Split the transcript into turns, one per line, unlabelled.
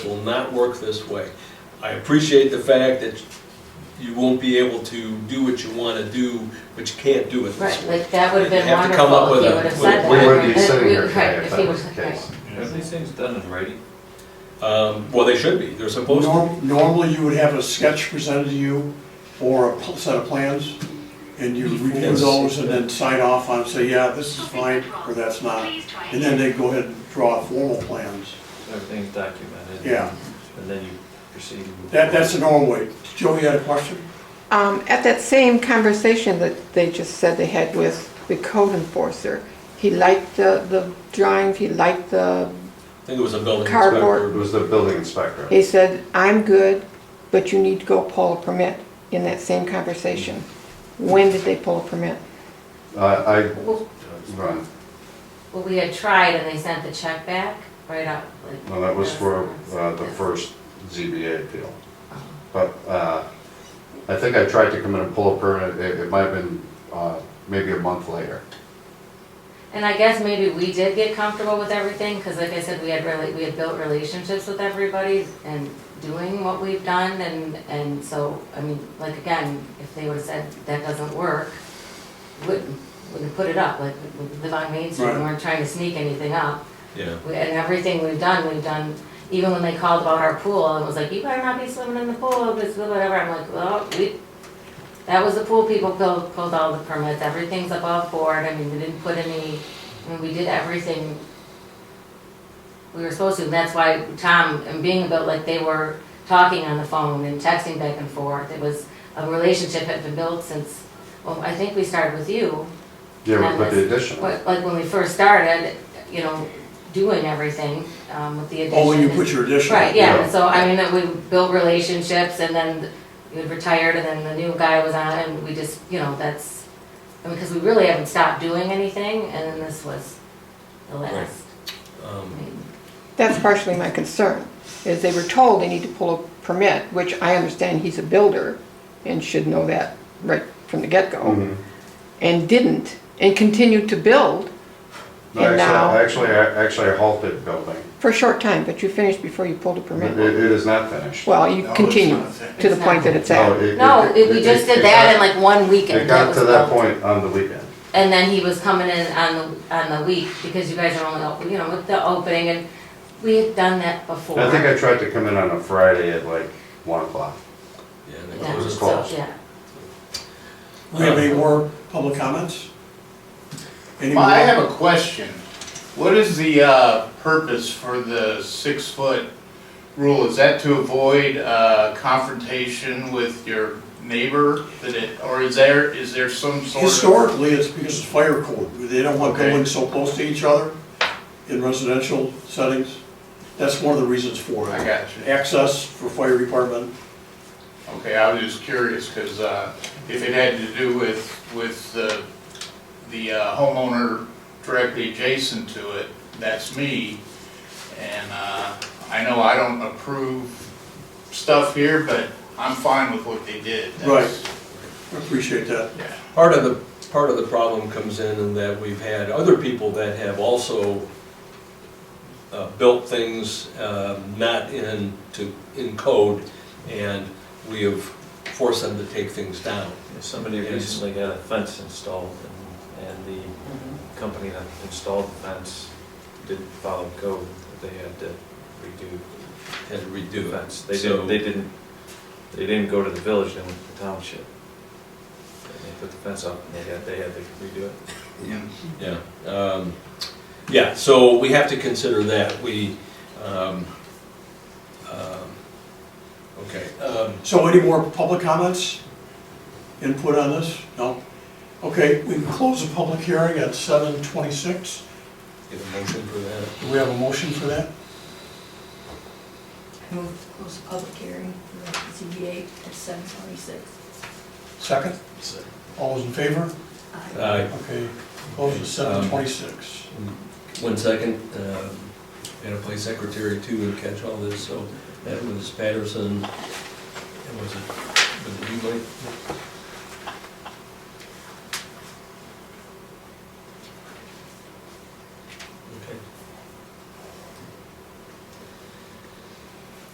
will not work this way. I appreciate the fact that you won't be able to do what you want to do, but you can't do it this
Right,
way.
like, that would've been
You have to come up
wonderful if
with
he
a-
would've
with a
said that.
plan.
We wouldn't be
Right,
sitting here
right,
today if
if
that
he
was the
right.
case.
Have these things done in writing?
Um, Well, they should be, they're supposed to.
Norm- Normally, you would have a sketch presented to you or a pl- set of plans, and you review
Yes.
those and then sign off on, say, yeah, this is fine, or that's not. And then they go ahead and draw formal plans.
Everything's documented?
Yeah.
And then you proceed? and move
That, that's the
forward.
normal way. Joe, you had a question?
Um, At that same conversation that they just said they had with the code enforcer, he liked the, the drawings, he liked the,
I think it was a building
It
Cardboard.
inspector.
was the building inspector.
he said, I'm good, but you need to go pull a permit in that same conversation. When did they pull a permit?
I, I,
Well,
right,
well, we had tried and they sent the check back right up. like-
no, that was for uh, the first ZBA appeal. But uh, I think I tried to come in and pull a permit, it, it might have been uh, maybe a month later.
And I guess maybe we did get comfortable with everything, because like I said, we had really, we had built relationships with everybody and doing what we've done, and, and so, I mean, like, again, if they would've said that doesn't work, wouldn't, wouldn't put it up, like, we live on Main Street, we
Right.
weren't trying to sneak anything up.
Yeah,
We- And everything we've done, we've done, even when they called about our pool, it was like, you better not be swimming in the pool, this, whatever, I'm like, well, we, that was the pool people pulled, pulled all the permits, everything's above board, I mean, we didn't put any, I mean, we did everything we were supposed to, and that's why Tom and being about, like, they were talking on the phone and texting back and forth, it was, a relationship had been built since, well, I think we started with you,
Yeah, we put the
Yes.
addition on.
what- like when we first started, you know, doing everything um, with the addition.
Oh, when you put your addition.
Right, yeah,
Yeah.
so I mean, that we built relationships and then we had retired and then the new guy was on and we just, you know, that's, I mean, because we really haven't stopped doing anything and then this was the last. I
um,
mean,
That's partially my concern, is they were told they need to pull a permit, which I understand he's a builder and should know that right from the get-go,
Mhm.
and didn't, and continued to build
No,
And now-
Actually, actually, I actually I halted building.
for a short time, but you finished before you pulled a
It,
permit.
it is not finished.
Well, you
No, it's
continue
not finished.
to the point that it's at.
No, it- we just did that in like one weekend.
It got
was
to that
built.
point on the weekend.
And then he was coming in on the, on the week because you guys are only, open, you know, with the opening and we had done that before.
I think I tried to come in on a Friday at like one o'clock.
yeah, and it
Yeah,
closes.
so,
closed.
Yeah.
We have any more public comments? Any
Well, I
more?
have a question. What is the uh, purpose for the six-foot rule? Is that to avoid uh, confrontation with your neighbor? That it, or is there, is there some sort of?
Historically, it's because of fire code. They don't want
Okay.
buildings so close to each other in residential settings. That's one of the reasons for it.
I got you.
Access for fire department.
Okay, I was just curious, because if it had to do with, with the, the uh, homeowner directly adjacent to it, that's me. And uh, I know I don't approve stuff here, but I'm fine with what they did. That's-
I Appreciate that.
Yeah.
Part of the, part of the problem comes in in that we've had other people that have also uh, built things um, not in, to, in code, and we have forced them to take things down.
Somebody
Yes.
recently got a fence installed and, and the
Mm-hmm.
company that installed the fence didn't follow code. They had to redo
and
the
redo it.
fence. They
So-
didn't, they didn't, they didn't go to the village, they went to the township. And they put the fence up and they had, they had to redo it.
Yeah, um, yeah, so we have to consider that, we, um, um, okay, um,
So any more public comments? Input on this? No? Okay, we can close the public hearing at seven twenty-six.
get a motion for that.
Do we have a motion for that?
Move to close the public hearing for ZBA at seven twenty-six.
Second? All those in favor?
Uh,
Okay, close at seven twenty-six.
One second, um, and I play secretary too and catch all this, so that was Patterson, and was it, was it you, Mike?